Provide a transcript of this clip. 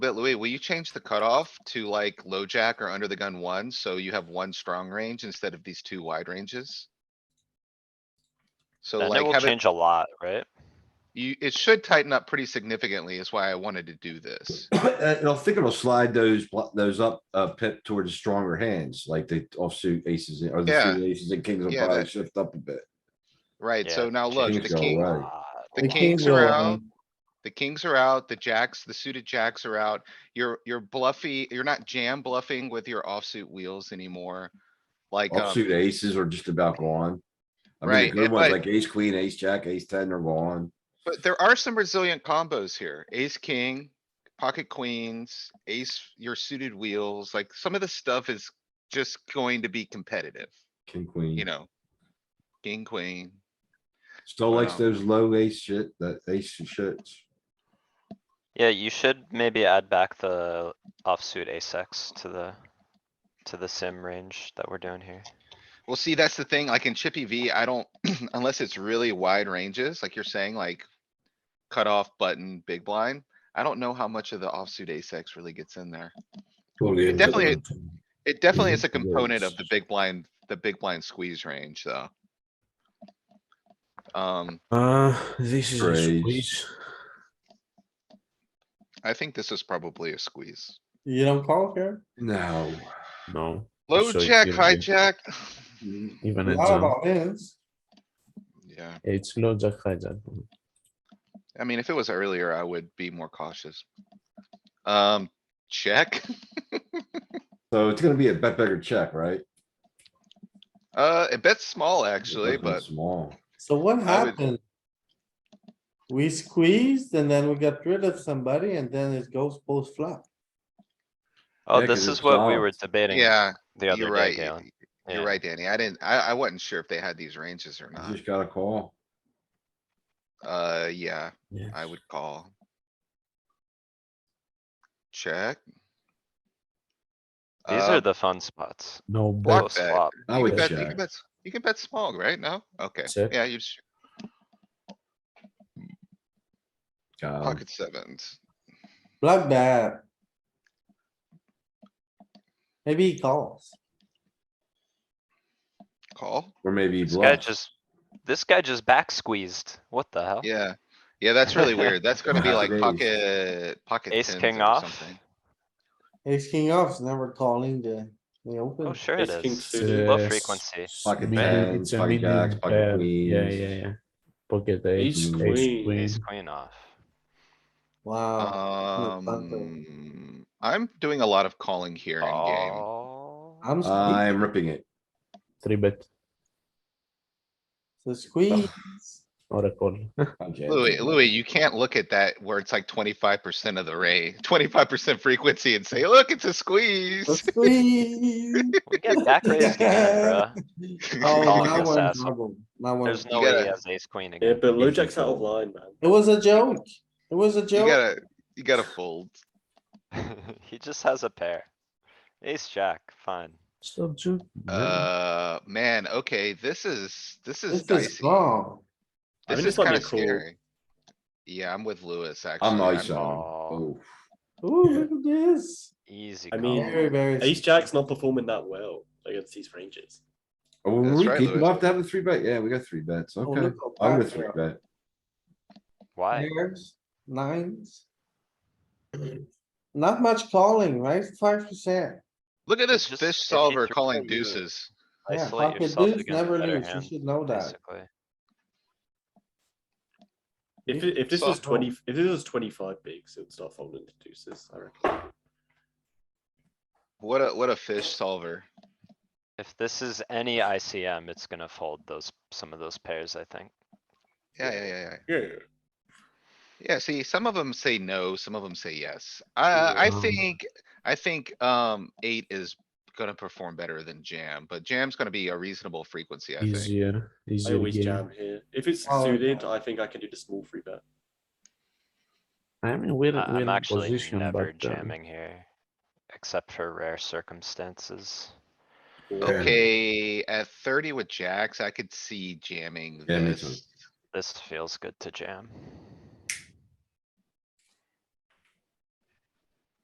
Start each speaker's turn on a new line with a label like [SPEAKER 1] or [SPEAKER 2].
[SPEAKER 1] But Louis, will you change the cutoff to like low jack or under the gun one, so you have one strong range instead of these two wide ranges? So
[SPEAKER 2] And it
[SPEAKER 1] like,
[SPEAKER 2] will
[SPEAKER 1] have it,
[SPEAKER 2] change a lot, right?
[SPEAKER 1] you, it should tighten up pretty significantly is why I wanted to do this.
[SPEAKER 3] Uh, And I think it'll slide those, blo- those up, uh, pip towards stronger hands, like the offsuit aces and- or the
[SPEAKER 1] Yeah.
[SPEAKER 3] suited aces and kings will
[SPEAKER 1] Yeah,
[SPEAKER 3] probably
[SPEAKER 1] that-
[SPEAKER 3] shift up a bit.
[SPEAKER 1] Right,
[SPEAKER 2] Yeah,
[SPEAKER 1] so now look,
[SPEAKER 3] change
[SPEAKER 1] the
[SPEAKER 3] it all
[SPEAKER 1] king,
[SPEAKER 3] around.
[SPEAKER 2] Ah,
[SPEAKER 1] the
[SPEAKER 4] The
[SPEAKER 1] kings
[SPEAKER 4] kings
[SPEAKER 1] are
[SPEAKER 4] are
[SPEAKER 1] out.
[SPEAKER 4] on.
[SPEAKER 1] The kings are out, the jacks, the suited jacks are out. You're, you're bluffy, you're not jam bluffing with your offsuit wheels anymore. Like, um,
[SPEAKER 3] Offsuit aces are just about gone. I mean,
[SPEAKER 1] Right,
[SPEAKER 3] the good
[SPEAKER 1] and
[SPEAKER 3] ones
[SPEAKER 1] like-
[SPEAKER 3] like ace, queen, ace, jack, ace ten are gone.
[SPEAKER 1] But there are some resilient combos here. Ace, king, pocket queens, ace, your suited wheels, like some of the stuff is just going to be competitive,
[SPEAKER 3] King, queen.
[SPEAKER 1] you know? King, queen.
[SPEAKER 3] Still likes
[SPEAKER 1] Wow.
[SPEAKER 3] those low ace shit, that ace and shits.
[SPEAKER 2] Yeah, you should maybe add back the offsuit ace X to the, to the sim range that we're doing here.
[SPEAKER 1] Well, see, that's the thing, like in Chippy V, I don't, unless it's really wide ranges, like you're saying, like cutoff button, big blind. I don't know how much of the offsuit ace X really gets in there.
[SPEAKER 4] It
[SPEAKER 1] definitely- It definitely is a
[SPEAKER 3] Mhm. Yeah,
[SPEAKER 1] component of
[SPEAKER 3] it's-
[SPEAKER 1] the big blind, the big blind squeeze range, though. Um,
[SPEAKER 4] Uh, this is a
[SPEAKER 3] Raise.
[SPEAKER 4] squeeze.
[SPEAKER 1] I think this is probably a squeeze.
[SPEAKER 5] You don't call here?
[SPEAKER 3] No.
[SPEAKER 4] No.
[SPEAKER 1] Low
[SPEAKER 4] So
[SPEAKER 1] jack,
[SPEAKER 4] here
[SPEAKER 1] high
[SPEAKER 4] we-
[SPEAKER 1] jack.
[SPEAKER 4] Even
[SPEAKER 5] A
[SPEAKER 4] it's,
[SPEAKER 5] lot
[SPEAKER 4] um,
[SPEAKER 5] of all ins.
[SPEAKER 1] Yeah,
[SPEAKER 4] it's low jack hijack.
[SPEAKER 1] I mean, if it was earlier, I would be more cautious. Um, check.
[SPEAKER 3] So it's gonna be a bet bigger check, right? It
[SPEAKER 1] Uh, it bets small actually,
[SPEAKER 4] Mm-hmm.
[SPEAKER 3] wasn't
[SPEAKER 1] but
[SPEAKER 3] Small.
[SPEAKER 5] So what
[SPEAKER 1] I would-
[SPEAKER 5] happened? We squeezed and then we got rid of somebody and then it goes post flop.
[SPEAKER 2] Oh,
[SPEAKER 3] Yeah, 'cause
[SPEAKER 2] this
[SPEAKER 3] it's
[SPEAKER 2] is what we were
[SPEAKER 3] solved.
[SPEAKER 2] debating
[SPEAKER 1] yeah,
[SPEAKER 2] the other
[SPEAKER 1] you're
[SPEAKER 2] day,
[SPEAKER 1] right.
[SPEAKER 2] Galen.
[SPEAKER 1] y- You're
[SPEAKER 2] Yeah.
[SPEAKER 1] right, Danny. I didn't, I, I wasn't sure if they had these ranges or
[SPEAKER 3] You
[SPEAKER 1] not.
[SPEAKER 3] Just got a call.
[SPEAKER 1] Uh, yeah,
[SPEAKER 4] Yeah.
[SPEAKER 1] I would call. Check.
[SPEAKER 2] These
[SPEAKER 1] Uh,
[SPEAKER 2] are the fun spots.
[SPEAKER 4] No
[SPEAKER 2] Low
[SPEAKER 4] bet.
[SPEAKER 1] Block bet.
[SPEAKER 2] flop.
[SPEAKER 3] I
[SPEAKER 1] You
[SPEAKER 3] would
[SPEAKER 1] can bet, you
[SPEAKER 3] check.
[SPEAKER 1] can bet, s- you can bet small, right? No? Okay,
[SPEAKER 4] Check.
[SPEAKER 1] yeah, you just
[SPEAKER 4] Um,
[SPEAKER 3] Got 'em.
[SPEAKER 1] pocket sevens.
[SPEAKER 5] Block that. Maybe he calls.
[SPEAKER 1] Call?
[SPEAKER 3] Or maybe
[SPEAKER 2] This guy
[SPEAKER 3] bluff.
[SPEAKER 2] just, this guy just back squeezed. What the hell?
[SPEAKER 1] Yeah, yeah, that's really weird. That's gonna be
[SPEAKER 3] Wow.
[SPEAKER 1] like
[SPEAKER 3] Raise.
[SPEAKER 1] pocket, pocket
[SPEAKER 2] Ace
[SPEAKER 1] tens
[SPEAKER 2] king
[SPEAKER 1] or
[SPEAKER 2] off?
[SPEAKER 1] something.
[SPEAKER 5] Ace king off is never calling the, the open.
[SPEAKER 2] Oh, sure it
[SPEAKER 6] Ace king
[SPEAKER 2] is.
[SPEAKER 6] suited.
[SPEAKER 2] Low
[SPEAKER 4] Yes.
[SPEAKER 2] frequency.
[SPEAKER 3] Pocket
[SPEAKER 4] Medium-
[SPEAKER 3] tens,
[SPEAKER 4] it's a
[SPEAKER 3] pocket
[SPEAKER 4] medium
[SPEAKER 3] jacks, pocket
[SPEAKER 4] pair. Yeah,
[SPEAKER 3] queens.
[SPEAKER 4] yeah, yeah. Pocket eight,
[SPEAKER 6] Ace
[SPEAKER 4] ace
[SPEAKER 6] queen.
[SPEAKER 4] queen.
[SPEAKER 2] Ace queen off.
[SPEAKER 4] Oh,
[SPEAKER 5] Wow, not fun though.
[SPEAKER 1] Um, I'm doing a lot of calling here in game.
[SPEAKER 2] Oh.
[SPEAKER 3] Uh,
[SPEAKER 5] I'm squeezed.
[SPEAKER 3] I'm ripping it.
[SPEAKER 4] Three bet
[SPEAKER 5] So squeeze.
[SPEAKER 4] or a call.
[SPEAKER 3] Okay.
[SPEAKER 1] Louis, Louis, you can't look at that where it's like twenty-five percent of the ray, twenty-five percent frequency and say, look, it's a
[SPEAKER 5] So
[SPEAKER 1] squeeze.
[SPEAKER 5] Squeeze.
[SPEAKER 2] We get back raised again, bruh.
[SPEAKER 5] Oh,
[SPEAKER 2] Calling
[SPEAKER 5] now
[SPEAKER 2] this
[SPEAKER 5] we're in
[SPEAKER 2] asshole.
[SPEAKER 5] trouble. Now we're in
[SPEAKER 2] There's no
[SPEAKER 1] You
[SPEAKER 2] way he
[SPEAKER 1] gotta-
[SPEAKER 2] has ace queen
[SPEAKER 6] Yeah,
[SPEAKER 2] again.
[SPEAKER 6] but low jack's out of line, man.
[SPEAKER 5] It was a joke. It was a
[SPEAKER 1] You
[SPEAKER 5] joke.
[SPEAKER 1] gotta, you gotta fold.
[SPEAKER 2] He just has a pair. Ace jack, fine.
[SPEAKER 4] Stop you.
[SPEAKER 1] Uh, man, okay, this is, this is
[SPEAKER 5] This is
[SPEAKER 1] dicey.
[SPEAKER 5] wrong.
[SPEAKER 6] I
[SPEAKER 1] This
[SPEAKER 6] mean,
[SPEAKER 1] is
[SPEAKER 6] this might be
[SPEAKER 1] kinda
[SPEAKER 6] cool.
[SPEAKER 1] scary. Yeah, I'm with Lewis, actually.
[SPEAKER 3] I'm ice
[SPEAKER 1] not-
[SPEAKER 3] on. him.
[SPEAKER 5] Ooh, look at this.
[SPEAKER 2] Easy
[SPEAKER 6] I
[SPEAKER 2] call.
[SPEAKER 6] mean,
[SPEAKER 5] Very, very.
[SPEAKER 6] Ace jack's not performing that well against these ranges.
[SPEAKER 3] Oh, were
[SPEAKER 1] That's
[SPEAKER 3] we
[SPEAKER 1] right,
[SPEAKER 3] deep
[SPEAKER 1] Louis.
[SPEAKER 3] enough to have a three bet? Yeah, we got three bets.
[SPEAKER 5] Oh,
[SPEAKER 3] Okay.
[SPEAKER 5] look how
[SPEAKER 3] I'm
[SPEAKER 5] fast
[SPEAKER 3] with
[SPEAKER 5] they
[SPEAKER 3] three
[SPEAKER 5] are.
[SPEAKER 3] bet.
[SPEAKER 2] Why?
[SPEAKER 5] Pairs, nines. Not much calling, right? Five percent.
[SPEAKER 1] Look at this
[SPEAKER 2] Just-
[SPEAKER 1] fish
[SPEAKER 2] it- it
[SPEAKER 1] solver
[SPEAKER 2] just
[SPEAKER 1] calling
[SPEAKER 2] put you-
[SPEAKER 1] deuces.
[SPEAKER 5] Yeah,
[SPEAKER 2] Isolate
[SPEAKER 5] pocket
[SPEAKER 2] yourself
[SPEAKER 5] deuce
[SPEAKER 2] against
[SPEAKER 5] never
[SPEAKER 2] better
[SPEAKER 5] lose. You
[SPEAKER 2] hand,
[SPEAKER 5] should know that.
[SPEAKER 2] Basically.
[SPEAKER 6] If, it- if this
[SPEAKER 1] So-
[SPEAKER 6] was twenty, if this was twenty-five bigs, it would start folding to deuces, I reckon.
[SPEAKER 1] What a, what a fish solver.
[SPEAKER 2] If this is any ICM, it's gonna fold those, some of those pairs, I think.
[SPEAKER 1] Yeah, yeah, yeah, yeah.
[SPEAKER 6] Yeah.
[SPEAKER 1] Yeah, see, some of them say no, some of them say yes. I, I
[SPEAKER 4] Yeah.
[SPEAKER 1] think, I think, um, eight is gonna perform better than jam, but jam's gonna be a reasonable frequency, I think.
[SPEAKER 4] Easier,
[SPEAKER 6] I
[SPEAKER 4] easier
[SPEAKER 6] always
[SPEAKER 4] game.
[SPEAKER 6] jam here. If it's
[SPEAKER 5] Oh,
[SPEAKER 6] suited,
[SPEAKER 5] no.
[SPEAKER 6] I think I can do the small free bet.
[SPEAKER 4] I mean, we're,
[SPEAKER 2] I-
[SPEAKER 4] we're
[SPEAKER 2] I'm
[SPEAKER 4] in
[SPEAKER 2] actually
[SPEAKER 4] position,
[SPEAKER 2] never
[SPEAKER 4] but. uh,
[SPEAKER 2] jamming here, except for rare circumstances.
[SPEAKER 6] Or-
[SPEAKER 1] Okay, at thirty with jacks, I could see jamming
[SPEAKER 3] Yeah, me too.
[SPEAKER 1] this.
[SPEAKER 2] This feels good to jam.